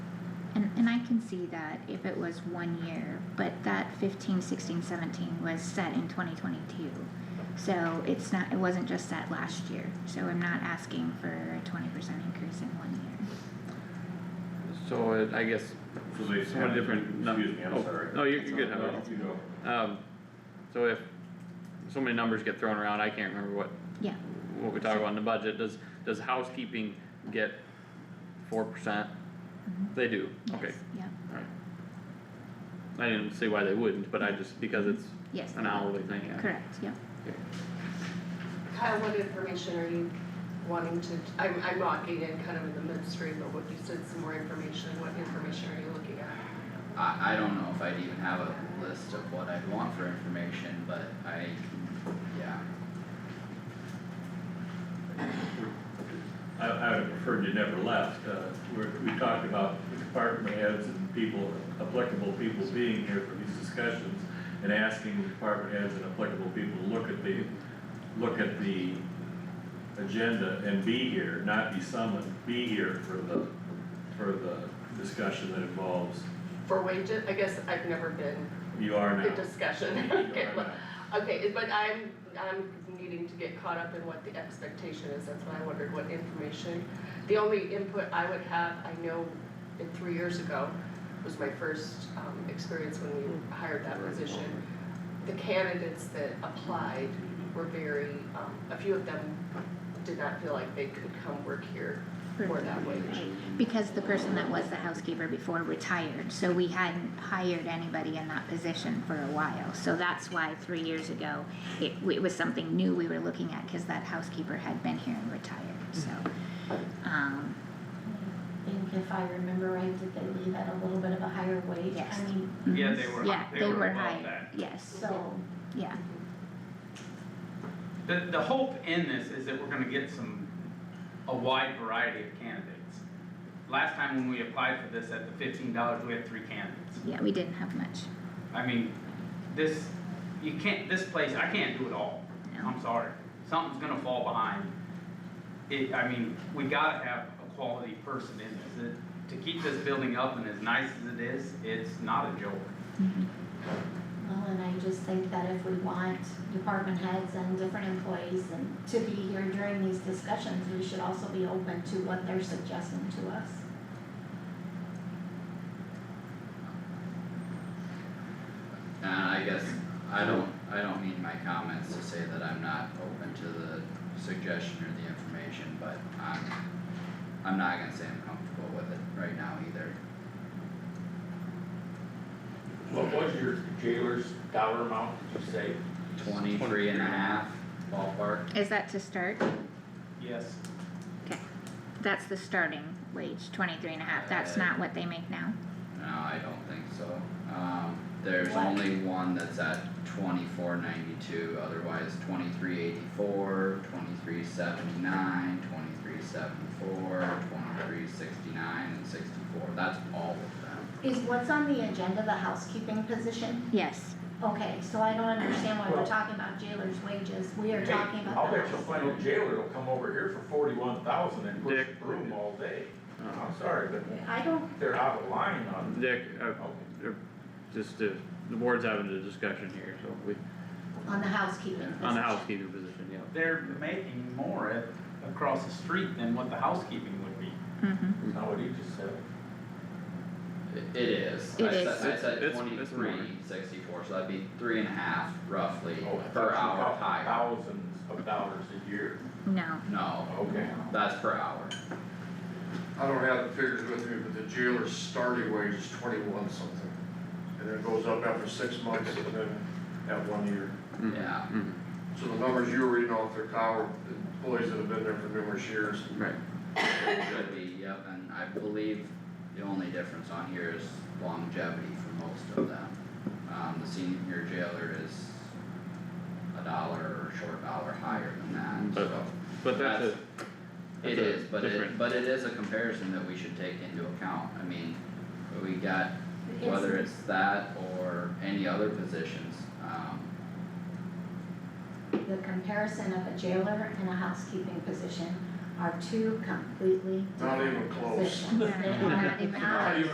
And, and I can see that if it was one year, but that 15, 16, 17 was set in twenty twenty-two. So it's not, it wasn't just set last year, so I'm not asking for a twenty percent increase in one year. So it, I guess, So they Somewhat have- different num- Excuse me, oh, I'm sorry. no, you're- you're good, No, Howard. you go. um, so if, so many numbers get thrown around, I can't remember what, Yeah, what we talk about in the budget, does, does housekeeping get four percent? Mhm. They do, okay, yes, yeah, alright. I didn't see why they wouldn't, but I just, because it's yes, an hourly thing, yeah. correct, yeah. Kyle, what information are you wanting to, I'm, I'm walking in kind of in the midstream, but what you said, some more information, what information are you looking at? I, I don't know if I'd even have a list of what I'd want for information, but I, yeah. I, I would prefer you never left, uh, we're, we talked about the department heads and people, applicable people being here for these discussions and asking the department heads and applicable people to look at the, look at the agenda and be here, not be summoned, be here for the, for the discussion that involves, For wages, I guess I've never been you are now. in You discussion. are Okay, now. well, Okay, but I'm, I'm needing to get caught up in what the expectation is, that's why I wondered what information. The only input I would have, I know in three years ago, was my first, um, experience when we hired that position. The candidates that applied were very, um, a few of them did not feel like they could come work here for that wage. Because the person that was the housekeeper before retired, so we hadn't hired anybody in that position for a while. So that's why three years ago, it, it was something new we were looking at, cause that housekeeper had been here and retired, so. Um, I think if I remember right, did they leave at a little bit of a higher wage? Yes. I mean, Yeah, they were- mm-hmm. Yeah, they they were were above hired, that. yes, so, yeah, The, the hope in this is that we're gonna get some, a wide variety of candidates. Last time when we applied for this at the fifteen dollars, we had three candidates. yeah, we didn't have much, I mean, this, you can't, this place, I can't do it all. No. I'm sorry, something's gonna fall behind. It, I mean, we gotta have a quality person in this. It- To keep this building up and as nice as it is, it's not a joke. well, and I just think that if we want department heads and different employees and to be here during these discussions, we should also be open to what they're suggesting to us. And I guess, I don't, I don't mean my comments to say that I'm not open to the suggestion or the information, but I'm, I'm not gonna say I'm comfortable with it right now either. What was your jailer's dollar amount, did you say? Twenty-three and a half ballpark, is that to start? Yes. That's the starting wage, twenty-three and a half, that's Uh, not what they make now? no, I don't think so. Um, there's What? only one that's at twenty-four ninety-two, otherwise twenty-three eighty-four, twenty-three seventy-nine, twenty-three seventy-four, twenty-three sixty-nine, and sixty-four, that's all of them. Is what's on the agenda the housekeeping position? Yes, Okay, so I don't understand why we're Well- talking about jailer's wages, we are Hey, talking about I'll the bet you'll housekeeping. find a jailer will come over here for forty-one thousand and push Dick. broom all day. Uh, I'm sorry, but I don't, they're out of line on, Dick, uh, okay. just, uh, the board's having a discussion here, so we, on the housekeeping on the position. housekeeping position, yeah. They're making more at, across the street than what the housekeeping would be. mm-hmm, Now what he just said. It is. It I is. said, I said It's- it's twenty-three sixty-four, so that'd be three and a half roughly Oh, I thought per you hour got higher. Thousands of dollars a year. no, No, Okay. that's per hour. I don't have the figures with me, but the jailer's starting wage is twenty-one something. And then it goes up after six months and then at one year. Mhm, Yeah. mhm, So the numbers you were reading off the cow, employees that have been there for numerous years. Right, It Could be, yep, and I believe the only difference on here is longevity for most of them. Um, the senior jailer is a dollar or short dollar higher than that, But- so. but that's a, That's- that's It a is, but it, different- but it is a comparison that we should take into account. I mean, we got whether it's that or any other positions, um, the comparison of a jailer and a housekeeping position are two completely Not different even close. positions. They are Not even not close.